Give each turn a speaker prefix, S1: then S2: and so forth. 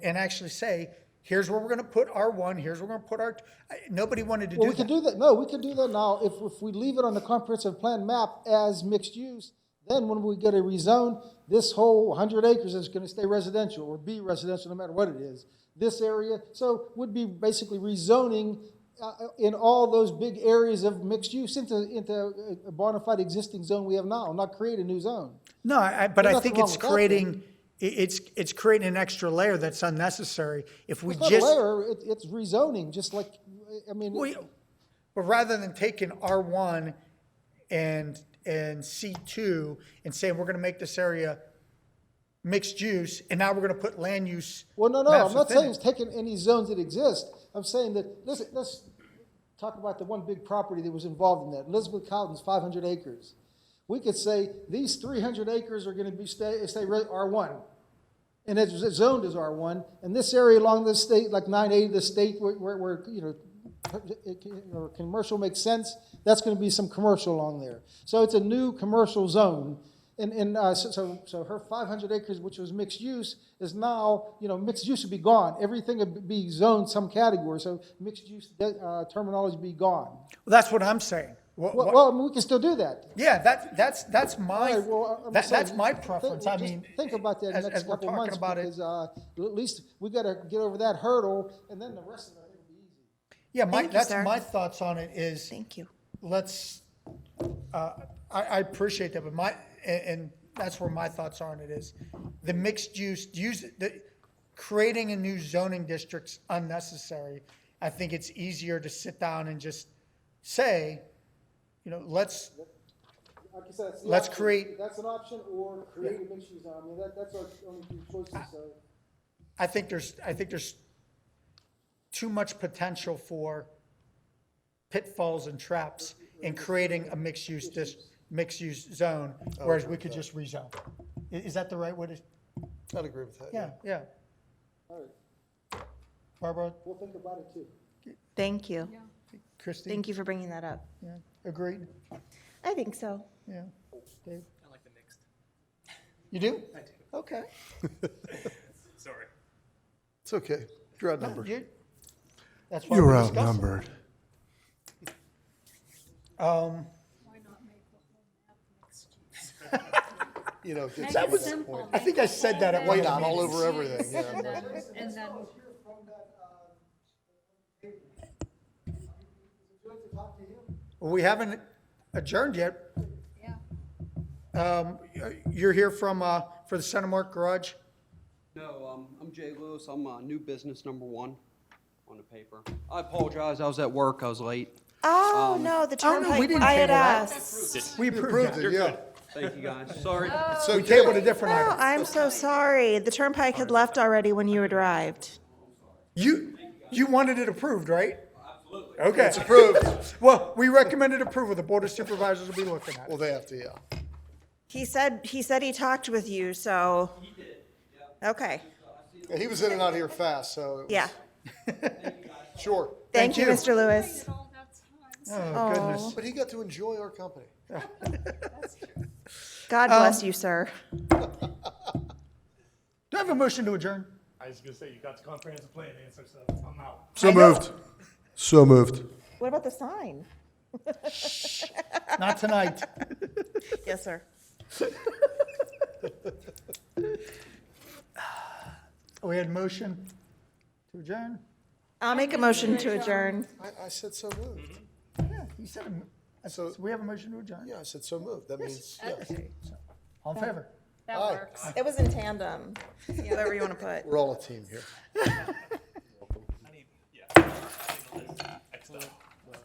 S1: and actually say, here's where we're gonna put R one, here's where we're gonna put R, two. nobody wanted to
S2: Well,
S1: do
S2: we could
S1: that.
S2: do that, no, we could do that now, if, if we leave it on the comprehensive plan map as mixed use, then when we get a rezone, this whole hundred acres is gonna stay residential, or be residential, no matter what it is. This area, so would be basically rezoning, uh, in all those big areas of mixed use into, into a- a bona fide existing zone we have now, not create a new zone.
S1: No, I, but I
S2: nothing
S1: think
S2: wrong
S1: it's
S2: with that, then.
S1: creating, i- it's, it's creating an extra layer that's unnecessary. If we
S2: It's not a
S1: just,
S2: layer, it, it's rezoning, just like, I mean.
S1: we, but rather than taking R one and, and C two and saying, we're gonna make this area mixed use, and now we're gonna put land use.
S2: Well, no, no,
S1: maps
S2: I'm not
S1: within
S2: saying
S1: it.
S2: it's taking any zones that exist. I'm saying that, listen, let's talk about the one big property that was involved in that, Elizabeth Collins, 500 acres. We could say, these 300 acres are gonna be, stay, stay re- R1. And it's it's zoned as R1, and this area along the state, like 980, the state where, where, where, you know, it can- or commercial makes sense, that's gonna be some commercial along there. So it's a new commercial zone. And, and, uh, so- so, so her five hundred acres, which was mixed use, is now, you know, mixed use would be gone. Everything would be zoned some category, so mixed use, uh, terminology be gone.
S1: Well, That's what I'm saying. What-
S2: Well,
S1: what-
S2: well, I mean, we can still do that.
S1: Yeah, that, that's, that's my,
S2: All right, well, I'm
S1: that-
S2: sorry.
S1: that's my
S2: Think-
S1: preference. I
S2: just
S1: mean.
S2: Think about that
S1: as-
S2: next
S1: as we're
S2: couple
S1: talking
S2: months,
S1: about it-
S2: because, uh, at least we gotta get over that hurdle, and then the rest of it will be easy.
S1: Yeah, my,
S3: Thank you,
S1: that's
S3: sir.
S1: my thoughts on it is,
S3: Thank you.
S1: let's, uh, I, I appreciate that, but my, and, and that's where my thoughts are on it is, the mixed use, use, the, creating a new zoning district's unnecessary. I think it's easier to sit down and just say, you know, let's,
S2: Like I said, it's the
S1: Let's
S2: option.
S1: create-
S2: That's an option, or create a mixed use, zone. I mean, that, that's our only two choices, so.
S1: I think there's, I think there's too much potential for pitfalls and traps in creating a mixed-use, dis mixed-use zone, whereas we could just rezone. I- Is, that the right way to,
S4: I'd agree with that.
S1: yeah, yeah.
S2: All right,
S1: Barbara,
S2: we'll think about it too.
S3: Thank you.
S1: Christie,
S3: Thank you for bringing that up.
S1: yeah, agreed,
S3: I think so.
S1: yeah. Dave? I like the mixed. You do? I do. Okay.
S5: Sorry.
S4: It's okay. You're outnumbered.
S1: You- That's why
S6: You're
S1: we're discussing.
S6: outnumbered.
S1: Um,
S4: You know, it's-
S1: That was- I think I said that at one
S4: White out
S1: time.
S4: all over everything, yeah.
S7: And then, and then,
S1: We haven't adjourned yet.
S7: yeah.
S1: Um, You're here from, uh, for the Center Mark Garage?
S8: No, um, I'm Jay Lewis. I'm, uh, new business number one on the paper. I apologize. I was at work. I was late.
S3: Oh, no, the
S1: Oh, no, we
S3: turnpike,
S1: didn't
S3: I had
S1: table that.
S3: asked.
S1: We approved it. Oh,
S4: Yeah.
S8: Thank you, guys. Sorry.
S4: So
S1: We tabled a different
S3: No,
S1: item.
S3: I'm so sorry. The turnpike had left already when you arrived.
S1: You, you wanted it approved, right? Absolutely. Okay. It's
S4: approved.
S1: Well, we recommended approval. The Board of Supervisors will be looking at it.
S4: Well, they have to, yeah.
S3: He said, he said he talked with you, so. He did, Okay,
S4: Yeah, He was in and out here fast, so. it was-
S3: yeah.
S4: Sure.
S3: Thank you,
S1: you.
S3: Mr. Lewis.
S7: Did all that time, so
S1: Oh, goodness.
S4: But he got to enjoy our company.
S7: that's true.
S3: God
S1: Um,
S3: bless you, sir.
S1: Do I have a motion to adjourn?
S5: I was gonna say, you got the comprehensive plan answer, so I'm out.
S6: So moved. So moved.
S3: What about the sign?
S1: Not tonight.
S3: Yes, sir.
S1: We had motion to adjourn?
S3: I'll make a motion to adjourn.
S4: I, I said so moved.
S1: Mm-hmm. Yeah, you said, a mo- I said,
S4: So-
S1: we have a motion to adjourn?
S4: Yeah, I said so moved. That means, yeah.
S1: All in favor?
S7: That
S4: Aye.
S7: works.
S3: It was in tandem, whatever you want to put.
S4: We're all a team here.
S5: Excellent.